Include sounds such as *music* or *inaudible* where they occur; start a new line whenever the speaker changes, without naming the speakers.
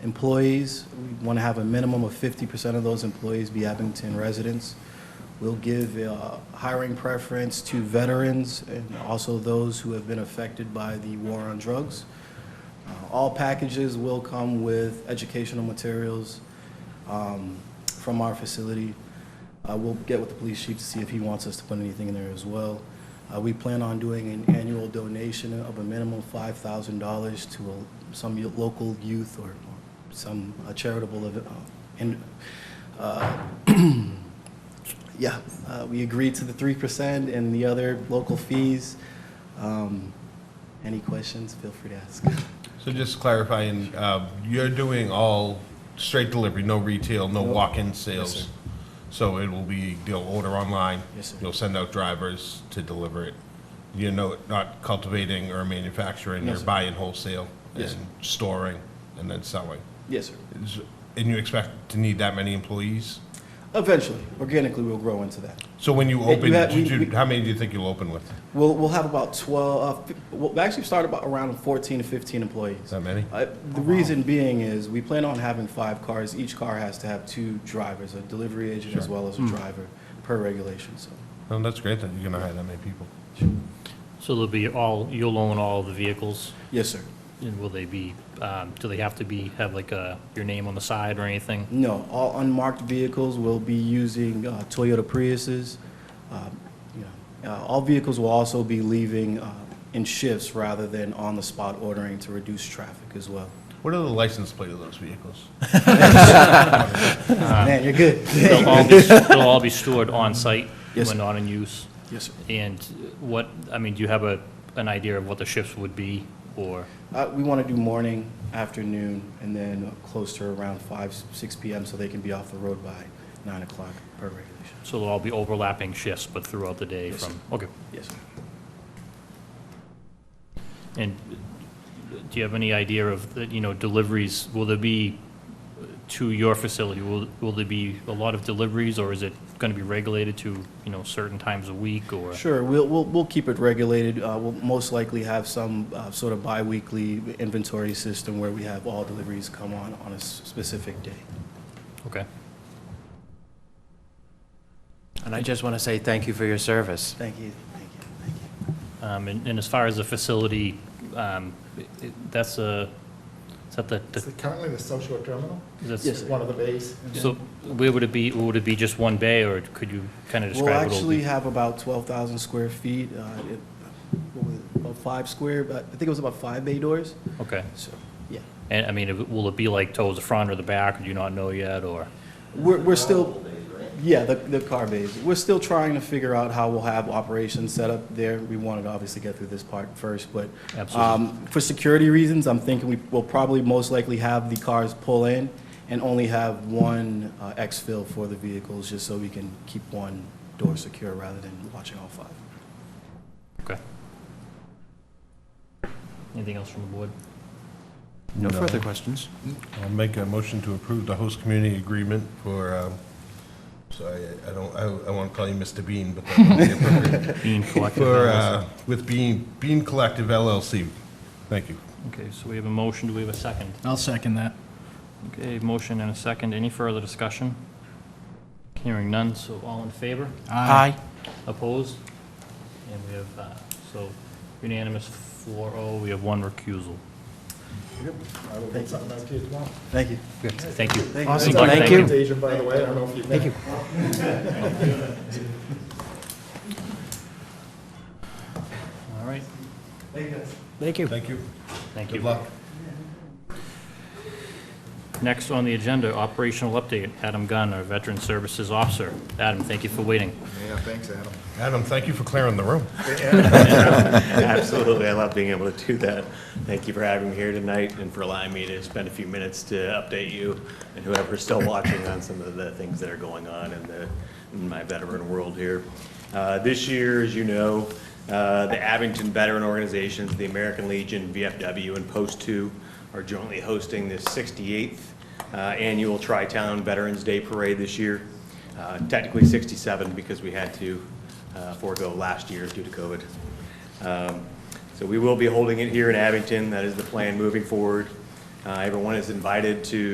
employees. We want to have a minimum of 50% of those employees be Abington residents. We'll give uh, hiring preference to veterans and also those who have been affected by the war on drugs. Uh, All packages will come with educational materials um, from our facility. Uh, We'll get with the police chief to see if he wants us to put anything in there as well. Uh, We plan on doing an annual donation of a minimum $5,000 to a- some yo- local youth or or some uh, charitable, ev- uh, and, uh, *clears throat* yeah, uh, we agreed to the 3% and the other local fees. Um, Any questions, feel free to ask. *laughs*
So just clarifying, uh, you're doing all straight delivery, no retail, no
No.
walk-in
Yes,
sales?
sir.
So it will be, they'll order online?
Yes, sir.
You'll send out drivers to deliver it? You're no- not cultivating or manufacturing,
No,
you're
sir.
buying wholesale?
Yes,
And storing and then selling?
Yes, sir.
Is- And you expect to need that many employees?
Eventually, organically, we'll grow into that.
So when you
you
open,
have-
did
we-
you-
we-
how many do you think you'll open with?
We'll, we'll have about 12, uh, fi- we'll actually start about around 14 to 15 employees.
Is that many?
Uh, The reason being is, we plan on having five cars. Each car has to have two drivers, a delivery agent as well as a driver, per regulation, so.
No, Oh, that's great that you're going to hire that many people.
So they'll be all, you'll own all the vehicles,
Yes, sir.
and will they be, um, do they have to be, have like a, your name on the side or anything?
No, all unmarked vehicles will be using uh, Toyota Priuses. Um, you know, uh, All vehicles will also be leaving uh, in shifts rather than on-the-spot ordering to reduce traffic as well.
What are the license plate of those vehicles?
Man, you're good.
They'll all be, they'll all be stored on-site
Yes,
when
sir.
not in use?
Yes, sir.
And what, I mean, do you have a, an idea of what the shifts would be, or?
Uh, We want to do morning, afternoon, and then close to around 5, 6 PM so they can be off the road by 9 o'clock per regulation.
So they'll all be overlapping shifts, but throughout the day
Yes,
from, okay.
Yes, sir.
And do you have any idea of, the, you know, deliveries, will there be uh, to your facility, will, will there be a lot of deliveries, or is it going to be regulated to, you know, certain times a week, or?
Sure, we'll, we'll, we'll keep it regulated. Uh, We'll most likely have some uh, sort of bi-weekly inventory system where we have all deliveries come on, on a s- specific day.
Okay.
And I just want to say thank you for your service.
Thank you, thank you, thank you.
Um, And and as far as the facility, um, it- it- that's a, is that the,
Is
the-
it currently the South Shore Terminal?
that's-
Yes, sir.
One of the bays?
so where would it be, would it be just one bay, or could you kind of
We'll
describe it?
actually have about 12,000 square feet, uh, it- what was it, about five square, but I think it was about five bay doors,
Okay,
so, yeah.
and I mean, if it- will it be like towards the front or the back, or do you not know yet, or?
We're, we're still, yeah, the, the car bays. We're still trying to figure out how we'll have operations set up there. We wanted to obviously get through this part first, but.
Absolutely.
um, For security reasons, I'm thinking we will probably most likely have the cars pull in and only have one uh, exfil for the vehicles, just so we can keep one door secure rather than watching all five.
Okay. Anything else from the board?
No further questions?
I'll make a motion to approve the host community agreement for, um, sorry, I- I don't, I- I want to call you Mr. Bean, but that's not the appropriate.
Bean collective.
*laughs*
For, uh, with Bean, Bean Collective LLC. Thank you.
Okay, so we have a motion, do we have a second?
I'll second that.
Okay, motion and a second, any further discussion? Hearing none, so all in favor? Opposed? And we have, uh, so unanimous 4-0, we have one recusal.
I will get something out to you tomorrow.
Thank you.
Thank you.
Thank you.
Awesome,
Good luck,
thank
thank
you.
you.
Agent, by the way, I don't know if you've met. Thank you.
All right,
Thank you.
Thank you.
thank
Good
you.
luck.
Next on the agenda, operational update, Adam Gunn, our Veteran Services Officer. Adam, thank you for waiting.
Yeah, thanks, Adam.
Adam, thank you for clearing the room.
*laughs* Absolutely, I love being able to do that. Thank you for having me here tonight and for allowing me to spend a few minutes to update you and whoever's still watching on some of the things that are going on in the, in my veteran world here. Uh, This year, as you know, uh, the Abington Veteran Organizations, the American Legion, VFW, and Post Two are jointly hosting the 68th uh, Annual Tri-Town Veterans Day Parade this year. Uh, Technically 67 because we had to uh, forego last year due to COVID. Um, So we will be holding it here in Abington. That is the plan moving forward. Uh, Everyone is invited to